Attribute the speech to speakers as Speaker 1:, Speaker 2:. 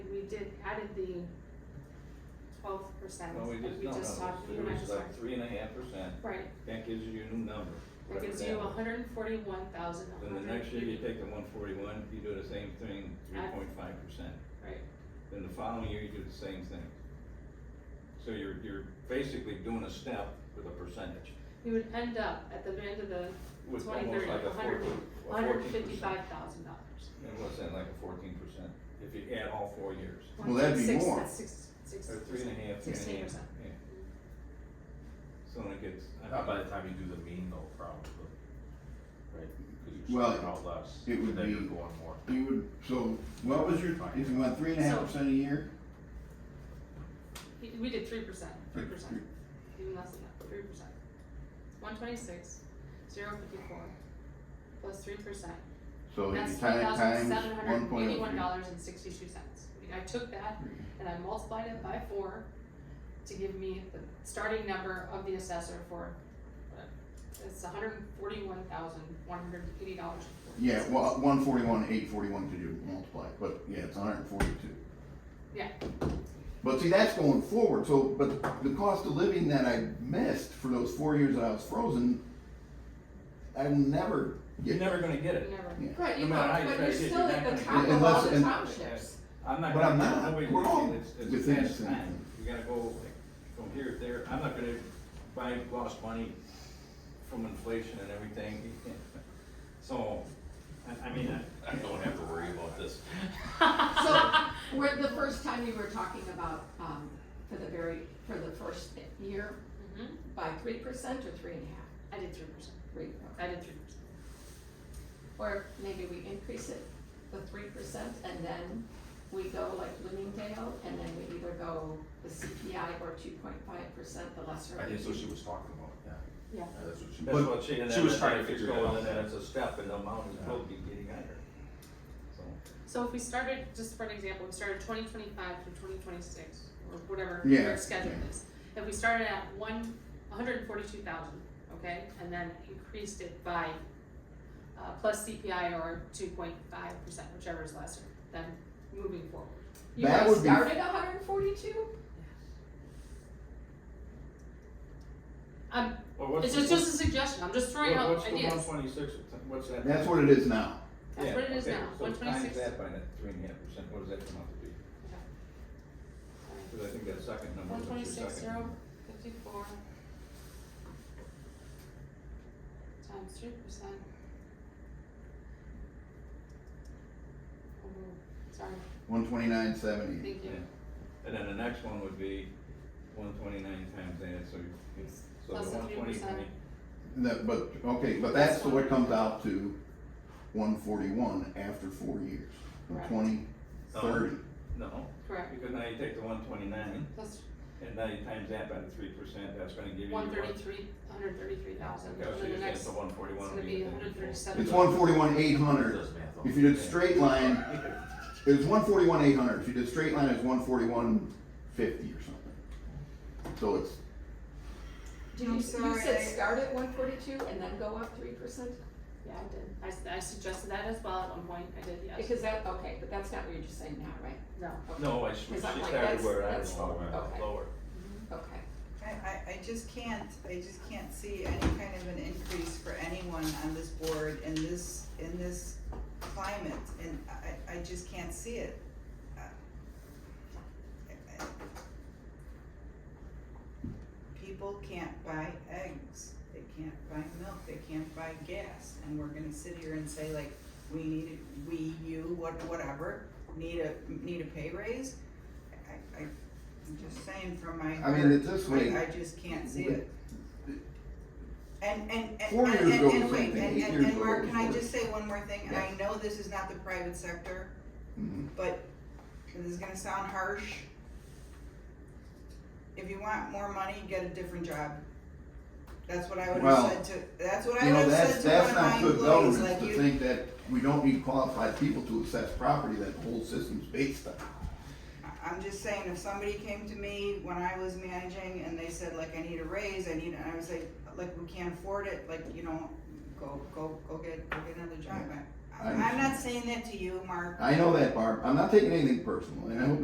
Speaker 1: added the twelve percent
Speaker 2: Well, we
Speaker 1: that
Speaker 2: just,
Speaker 1: we
Speaker 2: no,
Speaker 1: just
Speaker 2: no,
Speaker 1: talked, we
Speaker 2: it
Speaker 1: were
Speaker 2: was
Speaker 1: just
Speaker 2: like
Speaker 1: talking.
Speaker 2: three and a half percent,
Speaker 1: Right,
Speaker 2: that gives you your new number.
Speaker 1: that
Speaker 2: whatever
Speaker 1: gives you
Speaker 2: was.
Speaker 1: hundred and forty-one thousand,
Speaker 2: Then the next year, you take the one forty-one, you do the same thing, three
Speaker 1: Add-
Speaker 2: point five percent,
Speaker 1: Right,
Speaker 2: then the following year, you do the same thing. So you're, you're basically doing a step with a percentage,
Speaker 1: we would end up at the end of the
Speaker 2: with
Speaker 1: twenty
Speaker 2: almost
Speaker 1: thirty,
Speaker 2: like a
Speaker 1: a hundred,
Speaker 2: fourteen,
Speaker 1: a hundred and fifty-five thousand dollars.
Speaker 2: And what's that, like a fourteen percent, if you add all four years,
Speaker 3: Well, that'd be more.
Speaker 1: Six, six,
Speaker 2: or three and a half, three and a half.
Speaker 1: sixteen percent.
Speaker 2: yeah. So when it gets, I
Speaker 4: Not
Speaker 2: mean,
Speaker 4: by the time you do the mean though, probably, right? 'Cause you're
Speaker 3: Well,
Speaker 4: starting out less,
Speaker 3: it would
Speaker 4: and then you're
Speaker 3: be-
Speaker 4: going more.
Speaker 3: You would, so what was your, if you went three and a half percent a year?
Speaker 1: We- We did three percent, three percent,
Speaker 3: three-
Speaker 1: even less than that, three percent. One twenty-six, zero fifty-four, plus three percent.
Speaker 3: So if
Speaker 1: That's
Speaker 3: you
Speaker 1: three
Speaker 3: tie it
Speaker 1: thousand
Speaker 3: times
Speaker 1: seven
Speaker 3: one
Speaker 1: hundred
Speaker 3: point oh
Speaker 1: eighty-one
Speaker 3: three.
Speaker 1: dollars and sixty-two cents. I took that and I multiplied it by four to give me the starting number of the assessor for, uh, it's hundred and forty-one thousand, one hundred and eighty dollars.
Speaker 3: Yeah, well, uh, one forty-one, eight forty-one could you multiply, but yeah, it's hundred and forty-two.
Speaker 1: Yeah.
Speaker 3: But see, that's going forward, so, but the cost of living that I missed for those four years that I was frozen, I will never
Speaker 2: you're
Speaker 3: get,
Speaker 2: never gonna get it.
Speaker 1: Never.
Speaker 3: Yeah.
Speaker 5: Right, you
Speaker 2: No matter how
Speaker 5: know,
Speaker 2: you
Speaker 5: but
Speaker 2: try
Speaker 5: you're
Speaker 2: to get
Speaker 5: still
Speaker 2: your
Speaker 5: at the
Speaker 2: back
Speaker 5: top
Speaker 3: in.
Speaker 5: of all
Speaker 3: Unless-
Speaker 5: the
Speaker 3: and-
Speaker 5: townships.
Speaker 2: I'm not.
Speaker 3: But
Speaker 2: gonna-
Speaker 3: I'm not.
Speaker 2: nobody
Speaker 3: We're
Speaker 2: can
Speaker 3: all
Speaker 2: feel it's- it's
Speaker 3: within
Speaker 2: past
Speaker 3: the same
Speaker 2: time.
Speaker 3: thing.
Speaker 2: You gotta go like from here to there, I'm not gonna buy lost money from inflation and everything. You can't. So, I, I mean, I, I don't have to worry about this.
Speaker 5: So, where the first time you were talking about, um, for the very, for the first year,
Speaker 1: Mhm.
Speaker 5: by three percent or three and a half?
Speaker 1: I did three percent,
Speaker 5: Three,
Speaker 1: I
Speaker 5: okay.
Speaker 1: did three percent.
Speaker 5: Or maybe we increase it, the three percent, and then we go like Bloomingdale, and then we either go the CPI or two point five percent, the lesser.
Speaker 4: I think that's what she was talking about, yeah.
Speaker 1: Yeah.
Speaker 4: That's what she.
Speaker 2: That's
Speaker 4: But-
Speaker 2: what she, and
Speaker 4: she
Speaker 2: then
Speaker 4: was
Speaker 2: if
Speaker 4: trying to
Speaker 2: it's
Speaker 4: figure it
Speaker 2: going,
Speaker 4: out.
Speaker 2: And then it's a step and the amount is
Speaker 4: Yeah.
Speaker 2: probably getting higher. So,
Speaker 1: So if we started, just for an example, we started twenty twenty-five through twenty twenty-six, or whatever
Speaker 3: Yeah,
Speaker 1: your schedule
Speaker 3: yeah.
Speaker 1: is. If we started at one, hundred and forty-two thousand, okay, and then increased it by, uh, plus CPI or two point five percent, whichever is lesser, then moving forward.
Speaker 5: You
Speaker 3: That
Speaker 5: guys
Speaker 3: would be-
Speaker 5: started hundred and forty-two?
Speaker 1: Um,
Speaker 2: well, what's
Speaker 1: it's
Speaker 2: the-
Speaker 1: just, just a suggestion, I'm just throwing
Speaker 2: what-
Speaker 1: out
Speaker 2: What's the one
Speaker 1: ideas,
Speaker 2: twenty-six, what's that?
Speaker 3: that's what it is now.
Speaker 1: that's
Speaker 2: Yeah,
Speaker 1: what it is
Speaker 2: okay,
Speaker 1: now, one
Speaker 2: So times
Speaker 1: twenty-six.
Speaker 2: that by that three and a half percent, what does that come out to be? Cause I think that second number
Speaker 1: One
Speaker 2: is your
Speaker 1: twenty-six,
Speaker 2: second.
Speaker 1: zero, fifty-four. Times three percent. Oh, sorry,
Speaker 3: One twenty-nine, seventy.
Speaker 1: thank you.
Speaker 2: And then the next one would be one twenty-nine times that, so you, so
Speaker 1: Plus
Speaker 2: the
Speaker 1: the
Speaker 2: one
Speaker 1: 3%.
Speaker 2: twenty-nine,
Speaker 3: That, but, okay, but that's what comes out to one forty-one after four years, from
Speaker 1: Correct.
Speaker 3: twenty,
Speaker 2: Oh.
Speaker 3: thirty.
Speaker 2: no,
Speaker 1: Correct,
Speaker 2: because now you take the one twenty-nine,
Speaker 1: plus
Speaker 2: and now you times that by the three percent, that's gonna give you. your
Speaker 1: one thirty-three, hundred thirty-three thousand,
Speaker 2: Okay, so
Speaker 1: and
Speaker 2: you
Speaker 1: the
Speaker 2: said
Speaker 1: next,
Speaker 2: the
Speaker 1: it's
Speaker 2: one forty-one
Speaker 1: gonna
Speaker 2: would
Speaker 1: be
Speaker 2: be.
Speaker 1: hundred thirty-seven.
Speaker 3: It's one forty-one, eight hundred.
Speaker 4: Does math on
Speaker 3: If
Speaker 4: it.
Speaker 3: you did straight line, it was one forty-one eight hundred, if you did straight line, it's one forty-one fifty or something. So it's,
Speaker 5: Did you,
Speaker 6: I'm
Speaker 5: you
Speaker 6: sorry,
Speaker 5: said
Speaker 6: I-
Speaker 5: start at one forty-two and then go up three percent?
Speaker 1: Yeah, I did, I, s- I suggested that as well at one point, I did, yes,
Speaker 5: Because that, okay, but that's not what you're just saying now, right?
Speaker 1: no,
Speaker 2: No, I, she she
Speaker 5: Is that like-
Speaker 2: started
Speaker 5: that's-
Speaker 2: where I was
Speaker 5: that's
Speaker 2: lower,
Speaker 5: okay.
Speaker 2: lower.
Speaker 5: Okay.
Speaker 6: I, I, I just can't, I just can't see any kind of an increase for anyone on this board in this, in this climate, and I, I just can't see it. Uh, I- I- People can't buy eggs, they can't buy milk, they can't buy gas, and we're gonna sit here and say like, we need, a- we, you, what, whatever, need a, need a pay raise? I, I, I'm just saying from my
Speaker 3: I
Speaker 6: heart.
Speaker 3: mean, it's this way.
Speaker 6: I, I just can't see it. And, and, and,
Speaker 3: Four
Speaker 6: and,
Speaker 3: years ago
Speaker 6: and,
Speaker 3: it was one
Speaker 6: and wait,
Speaker 3: thing,
Speaker 6: and,
Speaker 3: eight
Speaker 6: and,
Speaker 3: years
Speaker 6: and
Speaker 3: ago it
Speaker 6: Mark,
Speaker 3: was
Speaker 6: can I
Speaker 3: worse.
Speaker 6: just say one more thing? And I
Speaker 3: Yes.
Speaker 6: know this is not the private sector,
Speaker 3: mhm.
Speaker 6: but, and this is gonna sound harsh. If you want more money, get a different job. That's what I would
Speaker 3: Well,
Speaker 6: have said to, that's what I
Speaker 3: you
Speaker 6: would
Speaker 3: know,
Speaker 6: have
Speaker 3: that's,
Speaker 6: said
Speaker 3: that's
Speaker 6: to one
Speaker 3: not
Speaker 6: of my
Speaker 3: good
Speaker 6: employees,
Speaker 3: governance
Speaker 6: like
Speaker 3: to
Speaker 6: you,
Speaker 3: think that we don't need qualified people to assess property that the whole system's based on.
Speaker 6: I- I'm just saying, if somebody came to me when I was managing and they said like, I need a raise, I need, and I was like, like, we can't afford it, like, you know, go, go, go get, go get another job. I-
Speaker 3: I
Speaker 6: I'm not
Speaker 3: understand.
Speaker 6: saying that to you, Mark,
Speaker 3: I know that, Barb, I'm not taking anything personal, and I hope